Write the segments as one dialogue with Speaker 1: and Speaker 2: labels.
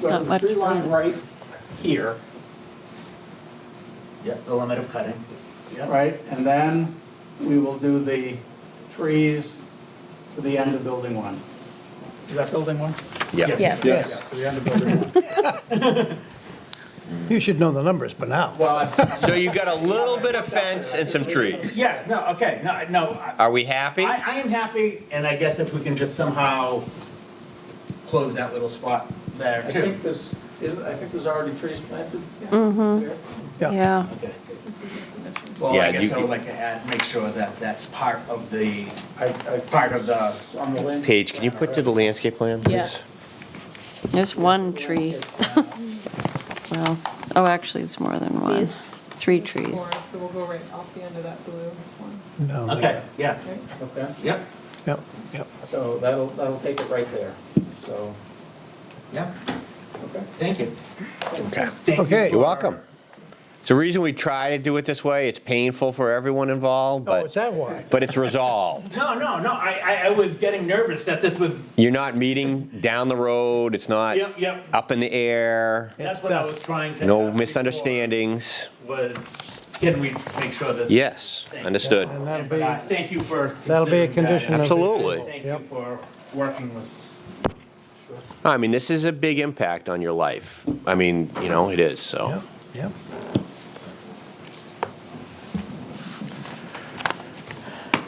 Speaker 1: So
Speaker 2: Not
Speaker 1: the
Speaker 2: much
Speaker 1: tree line
Speaker 2: further.
Speaker 1: right here,
Speaker 3: Yeah, the limit of cutting. Yeah,
Speaker 1: right? And then we will do the trees to the end of building one. Is that building one?
Speaker 4: Yeah.
Speaker 2: Yes.
Speaker 1: Yeah, to the end of building one.
Speaker 5: You should know the numbers by now.
Speaker 1: Well, I-
Speaker 4: So you've got a little bit of fence and some trees.
Speaker 3: Yeah, no, okay, no, I- no, I,
Speaker 4: Are we happy?
Speaker 3: I I am happy, and I guess if we can just somehow close that little spot there
Speaker 1: I
Speaker 3: too.
Speaker 1: think this, is, I think there's already trees planted.
Speaker 2: Mm-hmm.
Speaker 1: there.
Speaker 2: Yeah,
Speaker 3: Okay. Well,
Speaker 4: Yeah,
Speaker 3: I guess
Speaker 4: you
Speaker 3: I would
Speaker 4: could-
Speaker 3: like to add, make sure that that's part of the,
Speaker 1: I, I,
Speaker 3: part of the,
Speaker 1: on the land.
Speaker 4: Paige, can you put to the landscape plan,
Speaker 2: Yeah.
Speaker 4: please?
Speaker 2: there's one tree, well, oh, actually, it's more than one.
Speaker 6: These?
Speaker 2: Three trees.
Speaker 6: Four, So we'll go right off the end of that blue one.
Speaker 5: No, they-
Speaker 3: okay, yeah,
Speaker 6: right?
Speaker 1: Okay,
Speaker 3: yep,
Speaker 5: Yep, yep.
Speaker 1: so that'll, that'll take it right there, so,
Speaker 3: yep,
Speaker 1: okay.
Speaker 3: thank you.
Speaker 4: Okay.
Speaker 3: Thank you
Speaker 5: Okay.
Speaker 3: for-
Speaker 4: You're welcome. It's the reason we try to do it this way. It's painful for everyone involved,
Speaker 5: Oh, it's
Speaker 4: but,
Speaker 5: that wide.
Speaker 4: but it's resolved.
Speaker 3: No, no, no, I, I, I was getting nervous that this was,
Speaker 4: You're not meeting down the road. It's not
Speaker 3: yep, yep,
Speaker 4: up in the air,
Speaker 3: that's what I was trying to.
Speaker 4: no
Speaker 3: ask before,
Speaker 4: misunderstandings.
Speaker 3: Was, can we make sure that?
Speaker 4: Yes, understood.
Speaker 5: And that'll
Speaker 3: But
Speaker 5: be,
Speaker 3: uh, thank you for.
Speaker 5: That'll be a
Speaker 3: considering that.
Speaker 5: condition of the-
Speaker 4: Absolutely.
Speaker 3: Thank you
Speaker 5: Yep.
Speaker 3: for working with.
Speaker 4: I mean, this is a big impact on your life. I mean, you know, it
Speaker 3: Oh,
Speaker 4: is, so.
Speaker 5: yep, yep.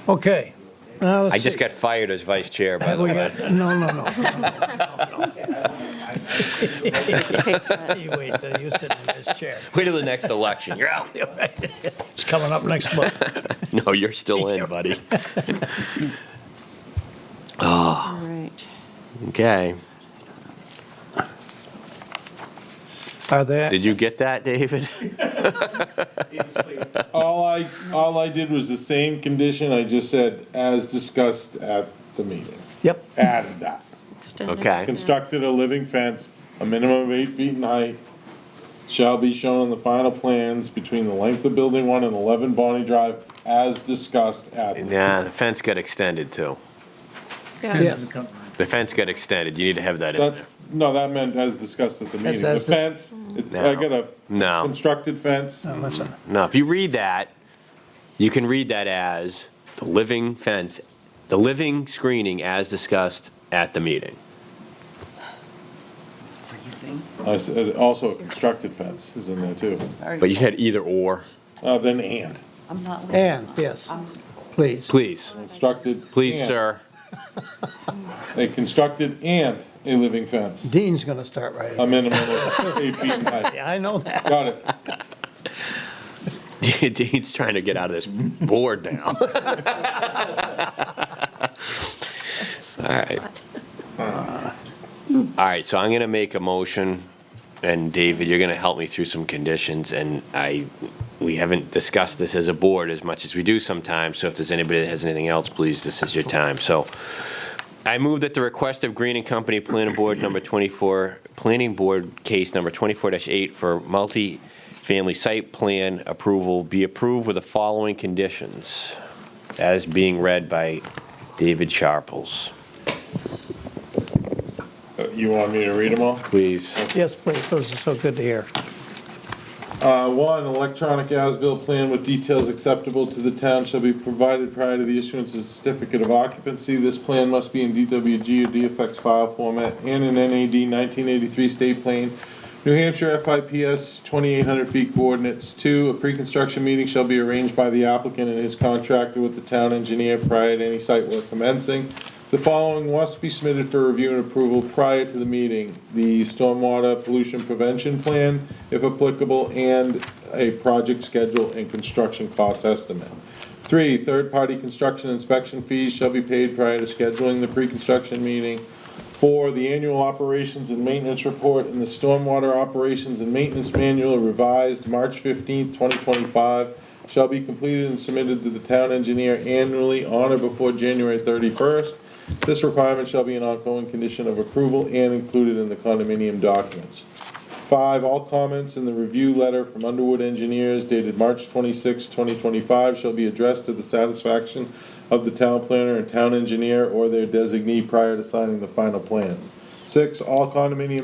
Speaker 5: Okay, now let's
Speaker 4: I just
Speaker 5: see.
Speaker 4: got fired as vice chair, by the
Speaker 5: We
Speaker 4: way.
Speaker 5: got- No, no, no.
Speaker 2: Take that.
Speaker 5: You wait, till you sit in this chair.
Speaker 4: Wait till the next election. You're out.
Speaker 5: It's coming up next month.
Speaker 4: No, you're still in, buddy.
Speaker 2: All right.
Speaker 4: Okay.
Speaker 5: Are there,
Speaker 4: Did you get that, David?
Speaker 7: All I, all I did was the same condition, I just said, as discussed at the meeting,
Speaker 5: yep,
Speaker 7: added that.
Speaker 2: Extend it.
Speaker 4: Okay.
Speaker 7: Constructed a living fence, a minimum of eight feet in height, shall be shown on the final plans between the length of building one and eleven Bonnie Drive, as discussed at. the-
Speaker 4: Nah, the fence got extended too.
Speaker 5: yeah,
Speaker 4: The fence got extended. You need to have that in
Speaker 7: That,
Speaker 4: there.
Speaker 7: no, that meant as discussed at the meeting, the
Speaker 5: as-
Speaker 7: fence, it- I got a
Speaker 4: No.
Speaker 7: constructed fence,
Speaker 5: No, listen,
Speaker 4: No, if you read that, you can read that as the living fence, the living screening as discussed at the meeting.
Speaker 7: I said, also a constructed fence is in there too,
Speaker 4: But you had either or.
Speaker 7: uh, then and,
Speaker 5: and, yes, please.
Speaker 4: Please,
Speaker 7: constructed.
Speaker 4: please,
Speaker 7: and.
Speaker 4: sir.
Speaker 7: a constructed and a living fence,
Speaker 5: Dean's going to start writing.
Speaker 3: Um,
Speaker 7: a minimum of eight feet in height.
Speaker 5: Yeah, I know that.
Speaker 7: Got it.
Speaker 4: Dean's trying to get out of this board now. All right. All right, so I'm going to make a motion, and David, you're going to help me through some conditions, and I, we haven't discussed this as a board as much as we do sometimes, so if there's anybody that has anything else, please, this is your time. So I move that the request of Green and Company Planning Board number 24, Planning Board case number 24-8 for multi-family site plan approval be approved with the following conditions, as being read by David Sharples.
Speaker 7: Uh, You want me to read them all?
Speaker 4: Please.
Speaker 5: Yes, please, those are so good to hear.
Speaker 7: Uh, one, electronic as-built plan with details acceptable to the town shall be provided prior to the issuance of certificate of occupancy. This plan must be in DWG or DFX file format and in NAD nineteen eighty-three state plan. New Hampshire FIPS twenty-eight hundred feet coordinates. Two, a pre-construction meeting shall be arranged by the applicant and his contractor with the town engineer prior to any site work commencing. The following must be submitted for review and approval prior to the meeting. The stormwater pollution prevention plan, if applicable, and a project schedule and construction cost estimate. Three, third-party construction inspection fees shall be paid prior to scheduling the pre-construction meeting. Four, the annual operations and maintenance report and the stormwater operations and maintenance manual revised March fifteenth, twenty twenty-five shall be completed and submitted to the town engineer annually on or before January thirty-first. This requirement shall be an ongoing condition of approval and included in the condominium documents. Five, all comments in the review letter from Underwood Engineers dated March 26, 2025 shall be addressed to the satisfaction of the town planner and town engineer or their designee prior to signing the final plans. Six, all condominium